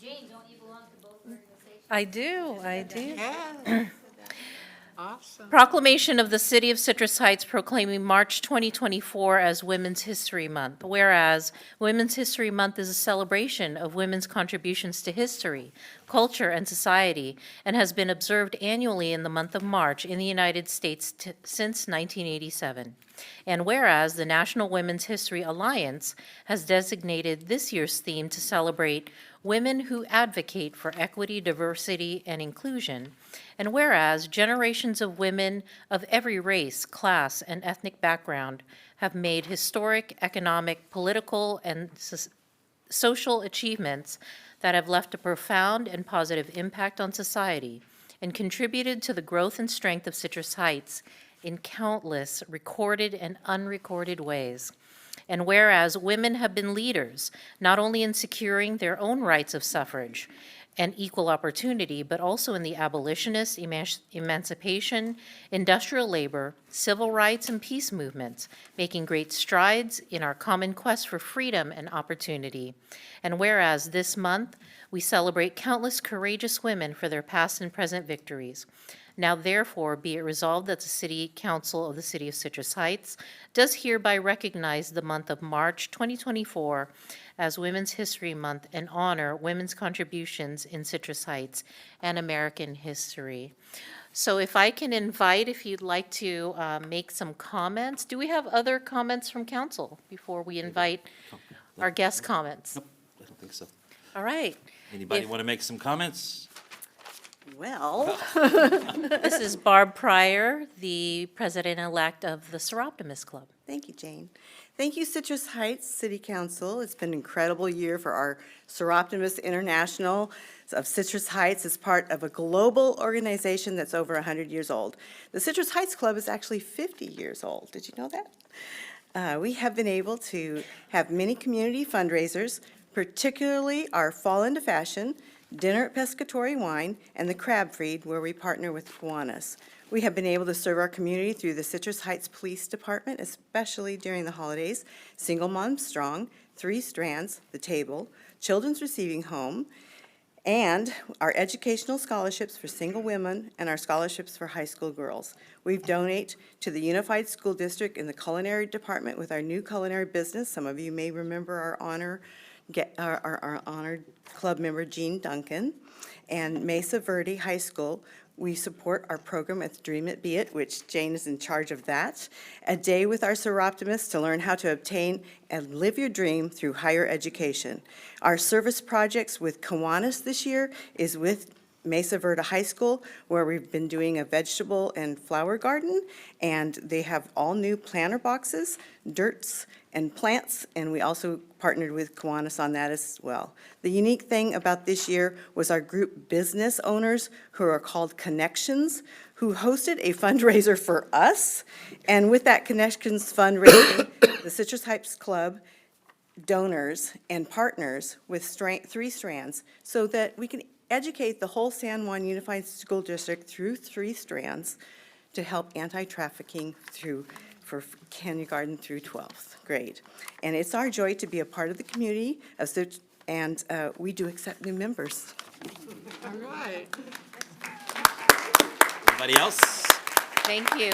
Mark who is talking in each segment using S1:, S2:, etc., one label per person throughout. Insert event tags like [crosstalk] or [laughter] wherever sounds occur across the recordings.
S1: Jane, don't you belong to both organizations?
S2: I do, I do.
S3: Yes. Awesome.
S2: Proclamation of the City of Citrus Heights proclaiming March 2024 as Women's History Month. Whereas Women's History Month is a celebration of women's contributions to history, culture, and society, and has been observed annually in the month of March in the United States t- since 1987. And whereas the National Women's History Alliance has designated this year's theme to celebrate women who advocate for equity, diversity, and inclusion. And whereas generations of women of every race, class, and ethnic background have made historic, economic, political, and sus- social achievements that have left a profound and positive impact on society and contributed to the growth and strength of Citrus Heights in countless recorded and unrecorded ways. And whereas women have been leaders, not only in securing their own rights of suffrage and equal opportunity, but also in the abolitionist, emanci- emancipation, industrial labor, civil rights, and peace movements, making great strides in our common quest for freedom and opportunity. And whereas this month, we celebrate countless courageous women for their past and present victories. Now therefore be it resolved that the City Council of the City of Citrus Heights does hereby recognize the month of March 2024 as Women's History Month and honor women's contributions in Citrus Heights and American history. So if I can invite, if you'd like to uh, make some comments, do we have other comments from council before we invite our guest comments?
S4: Nope, I don't think so.
S2: All right.
S4: Anybody
S2: If-
S4: want to make some comments?
S3: Well,
S2: This is Barb Pryor, the president-elect of the Seroptimus Club.
S3: thank you, Jane. Thank you, Citrus Heights City Council. It's been an incredible year for our Seroptimus International of Citrus Heights as part of a global organization that's over 100 years old. The Citrus Heights Club is actually 50 years old. Did you know that? Uh, We have been able to have many community fundraisers, particularly our Fall into Fashion, Dinner at Pescatory Wine, and the Crab Feed, where we partner with Kiwanis. We have been able to serve our community through the Citrus Heights Police Department, especially during the holidays, Single Mom Strong, Three Strands, The Table, Children's Receiving Home, and our educational scholarships for single women and our scholarships for high school girls. We've donate to the Unified School District in the culinary department with our new culinary business. Some of you may remember our honor, get, our, our- our honored club member Jean Duncan. And Mesa Verde High School, we support our program at Dream It Be It, which Jane is in charge of that. A day with our Seroptimists to learn how to obtain and live your dream through higher education. Our service projects with Kiwanis this year is with Mesa Verde High School, where we've been doing a vegetable and flower garden, and they have all new planter boxes, dirts, and plants, and we also partnered with Kiwanis on that as well. The unique thing about this year was our group business owners, who are called Connections, who hosted a [laughs] fundraiser for us, and with that Connections fundraising, the Citrus Heights Club donors and partners with stra- three strands so that we can educate the whole San Juan Unified School District through three strands to help anti-trafficking through, for kindergarten through 12th grade. And it's our joy to be a part of the community of such, and uh, we do accept new members.
S4: Anybody else?
S2: Thank you.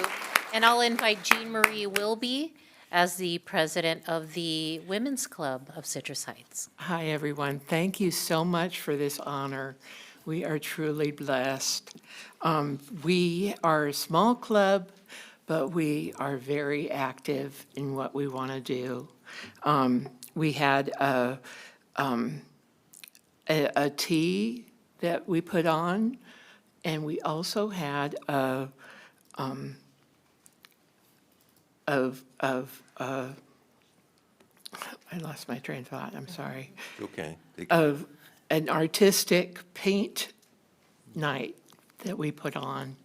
S2: And I'll invite Jean Marie Wilby as the president of the Women's Club of Citrus Heights.
S5: Hi, everyone. Thank you so much for this honor. We are truly blessed. Um, We are a small club, but we are very active in what we want to do. Um, We had a, um, a a tea that we put on, and we also had a, um, of, of, uh, I lost my train of thought, I'm sorry
S4: Okay.
S5: of an artistic paint night that we put on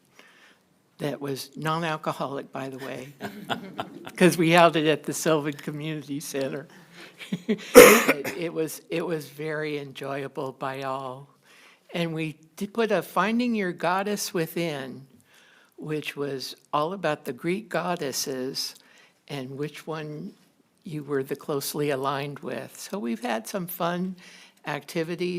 S5: that was non-alcoholic, by the way, because we held it at the Sylvan Community Center. It it was, it was very enjoyable by all. And we did put a Finding Your Goddess Within, which was all about the Greek goddesses and which one you were the closely aligned with. So we've had some fun activities.